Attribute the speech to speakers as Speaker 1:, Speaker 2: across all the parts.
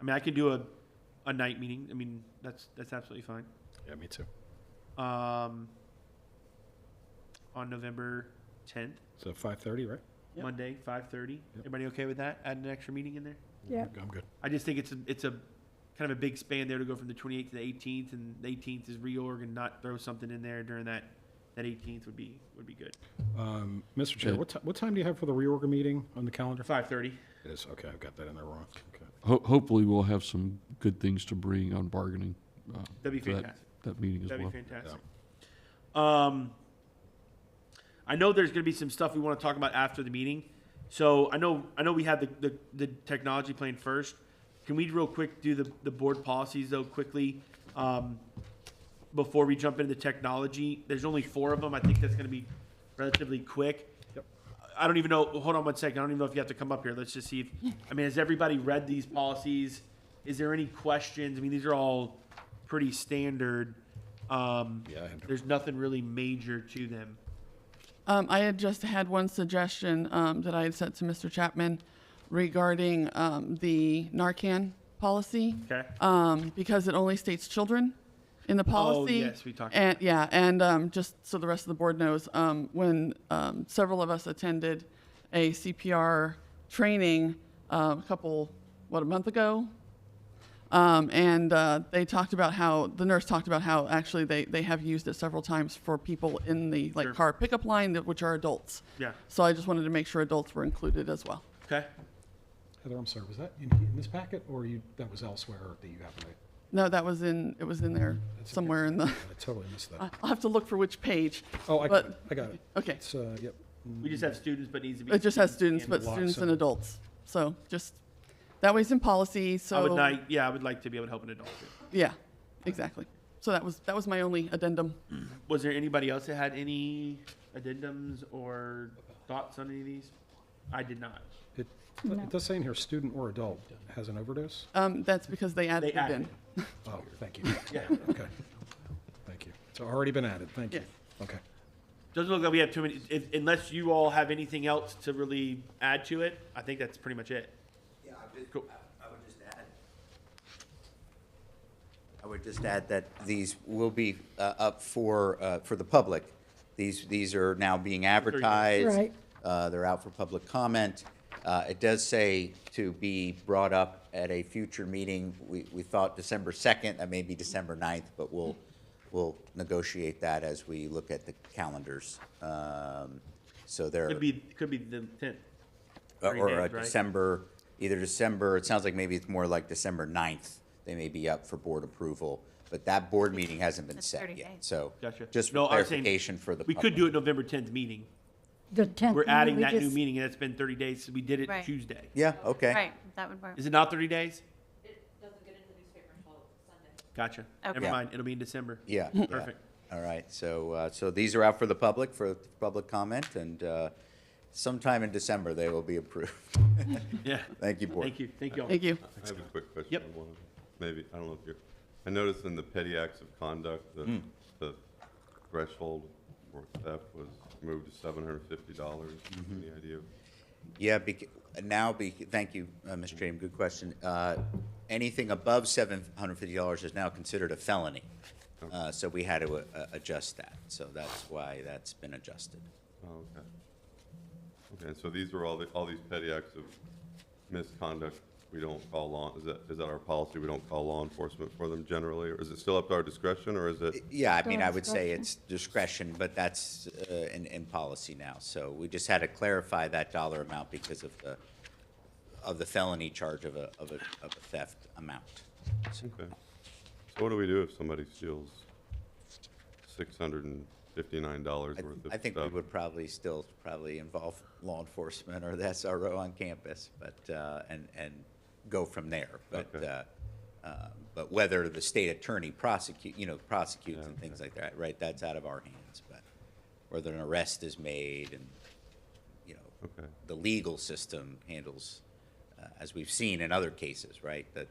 Speaker 1: I mean, I can do a, a night meeting. I mean, that's, that's absolutely fine.
Speaker 2: Yeah, me too.
Speaker 1: Um, on November tenth,
Speaker 2: So five thirty, right?
Speaker 3: Yep.
Speaker 1: Monday, five thirty.
Speaker 2: Yep.
Speaker 1: Everybody okay with that? Add an extra meeting in there?
Speaker 4: Yeah.
Speaker 2: I'm good.
Speaker 1: I just think it's a, it's a kind of a big span there to go from the 28th to the 18th, and the 18th is reorg, and not throw something in there during that that 18th would be would be good.
Speaker 2: Um, Mr. Chair,
Speaker 5: Yeah.
Speaker 2: what, ti- what time do you have for the reorg meeting on the calendar?
Speaker 1: 5:30.
Speaker 2: It is, okay, I've got that in there wrong. Okay.
Speaker 5: Ho- hopefully, we'll have some good things to bring on bargaining. Uh,
Speaker 1: That'd be
Speaker 5: to that-
Speaker 1: fantastic.
Speaker 5: That meeting as
Speaker 1: That'd
Speaker 5: well.
Speaker 1: be fantastic. Um, I know there's going to be some stuff we want to talk about after the meeting. So I know I know we had the, the, the technology plan first. Can we real quick do the, the board policies though quickly? Um, before we jump into the technology, there's only four of them. I think that's going to be relatively quick. I don't even know. Hold on one second. I don't even know if you have to come up here. Let's just see if. I mean, has everybody read these policies? Is there any questions? I mean, these are all pretty standard. Um,
Speaker 2: Yeah, I had-
Speaker 1: There's nothing really major to them.
Speaker 6: Um, I had just had one suggestion um, that I had sent to Mr. Chapman regarding um, the Narcan policy.
Speaker 1: Okay. Oh,
Speaker 6: Um, because it only states children in the policy.
Speaker 1: yes, we talked
Speaker 6: And yeah, and um, just so the rest of the board knows, um, when um, several of us attended a CPR training um, a couple, what, a month ago, um, and uh, they talked about how the nurse talked about how actually they, they have used it several times for people in the like
Speaker 1: Sure.
Speaker 6: car pickup line that, which are adults.
Speaker 1: Yeah.
Speaker 6: So I just wanted to make sure adults were included as well.
Speaker 1: Okay.
Speaker 2: Heather, I'm sorry, was that in, in this packet or you, that was elsewhere that you happened to?
Speaker 6: No, that was in it was in there
Speaker 2: That's okay.
Speaker 6: somewhere in the.
Speaker 2: I totally missed
Speaker 4: Uh,
Speaker 2: that.
Speaker 6: I'll have to look for which page.
Speaker 2: Oh, I got
Speaker 6: but-
Speaker 2: it, I got it.
Speaker 6: Okay,
Speaker 2: It's, uh, yep.
Speaker 1: We just have students, but needs to be.
Speaker 6: it just has students,
Speaker 1: and
Speaker 6: but
Speaker 2: lock
Speaker 6: students and
Speaker 2: some.
Speaker 6: adults. So just that way's in policy. So
Speaker 1: I would like. Yeah, I would like to be able to help an adult.
Speaker 6: yeah, exactly. So that was that was my only addendum.
Speaker 1: Was there anybody else that had any addendums or thoughts on any of these? I did not.
Speaker 2: It,
Speaker 4: No.
Speaker 2: it does say in here, student or adult has an overdose?
Speaker 6: Um, that's because they added
Speaker 1: They
Speaker 6: it
Speaker 1: added.
Speaker 6: in.
Speaker 2: Oh, thank you.
Speaker 1: Yeah.
Speaker 2: Okay. Thank you. It's already been added, thank you. Okay.
Speaker 1: Doesn't look like we have too many, if, unless you all have anything else to really add to it, I think that's pretty much it.
Speaker 7: Yeah, I would,
Speaker 1: Cool.
Speaker 7: I- I would just add. I would just add that these will be uh, up for, uh, for the public. These, these are now being advertised.
Speaker 4: Right.
Speaker 7: Uh, They're out for public comment. Uh, It does say to be brought up at a future meeting. We, we thought December 2nd, that may be December 9th, but we'll, we'll negotiate that as we look at the calendars. Um, So there.
Speaker 1: Could be, could be the tenth.
Speaker 7: uh, Or-
Speaker 1: Three
Speaker 7: Or
Speaker 1: days,
Speaker 7: a
Speaker 1: right?
Speaker 7: December, either December, it sounds like maybe it's more like December 9th, they may be up for board approval, but that board meeting hasn't been
Speaker 8: That's
Speaker 7: set
Speaker 8: 30
Speaker 7: yet,
Speaker 8: days.
Speaker 7: so.
Speaker 1: Gotcha.
Speaker 7: Just
Speaker 1: No,
Speaker 7: for
Speaker 1: I was saying,
Speaker 7: clarification for the
Speaker 1: We
Speaker 7: public.
Speaker 1: could do it November tenth meeting.
Speaker 4: The
Speaker 1: We're
Speaker 4: 10th. meeting,
Speaker 1: adding
Speaker 4: we
Speaker 1: that new
Speaker 4: just-
Speaker 1: meeting, and it's been thirty days, so we did it
Speaker 8: Right.
Speaker 1: Tuesday.
Speaker 7: Yeah, okay.
Speaker 8: Right, that would work.
Speaker 1: Is it not thirty days?
Speaker 9: It doesn't get into the newspaper until Sunday.
Speaker 1: Gotcha. Never
Speaker 8: Okay.
Speaker 1: mind, it'll be in December.
Speaker 7: Yeah. yeah.
Speaker 1: Perfect.
Speaker 7: All right, so, uh, so these are out for the public, for public comment, and uh, sometime in December, they will be approved.
Speaker 1: Yeah.
Speaker 7: Thank you, board.
Speaker 1: Thank you, thank you all.
Speaker 6: Thank you.
Speaker 9: I have a quick question.
Speaker 1: Yep.
Speaker 9: on one of them. Maybe, I don't know if you're, I noticed in the petty acts of conduct,
Speaker 7: Hmm.
Speaker 9: the, the threshold for theft was moved to seven hundred fifty dollars.
Speaker 7: Mm-hmm.
Speaker 9: Any idea?
Speaker 7: Yeah, bec- now, be, thank you, uh, Mr. James, good question. Uh, Anything above $750 is now considered a felony, Uh, so we had to uh, adjust that. So that's why that's been adjusted.
Speaker 9: Oh, okay. Okay, so these were all the, all these petty acts of misconduct we don't call law, is that, is that our policy? We don't call law enforcement for them generally, or is it still up to our discretion, or is it?
Speaker 7: Yeah, I mean,
Speaker 4: Still
Speaker 7: I would say
Speaker 4: discretion.
Speaker 7: it's discretion, but that's uh, in, in policy now. So we just had to clarify that dollar amount because of the, of the felony charge of a, of a of a theft amount.
Speaker 9: Okay. So what do we do if somebody steals six hundred and fifty-nine dollars
Speaker 7: I-
Speaker 9: worth of stuff?
Speaker 7: I think we would probably still probably involve law enforcement or the SRO on campus, but, uh, and, and go from there. But,
Speaker 9: Okay.
Speaker 7: uh, uh, but whether the state attorney prosecute, you know, prosecutes
Speaker 9: Yeah,
Speaker 7: and things like that, right, that's out of our hands. But whether an arrest is made and, you know,
Speaker 9: Okay.
Speaker 7: the legal system handles, uh, as we've seen in other cases, right? That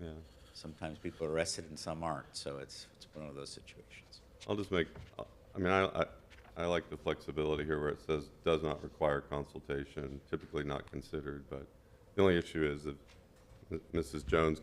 Speaker 9: Yeah,
Speaker 7: sometimes people are arrested and some aren't, so it's, it's one of those situations.
Speaker 9: I'll just make, I- I mean, I, I, I like the flexibility here where it says does not require consultation, typically not considered, but the only issue is if Mrs. Jones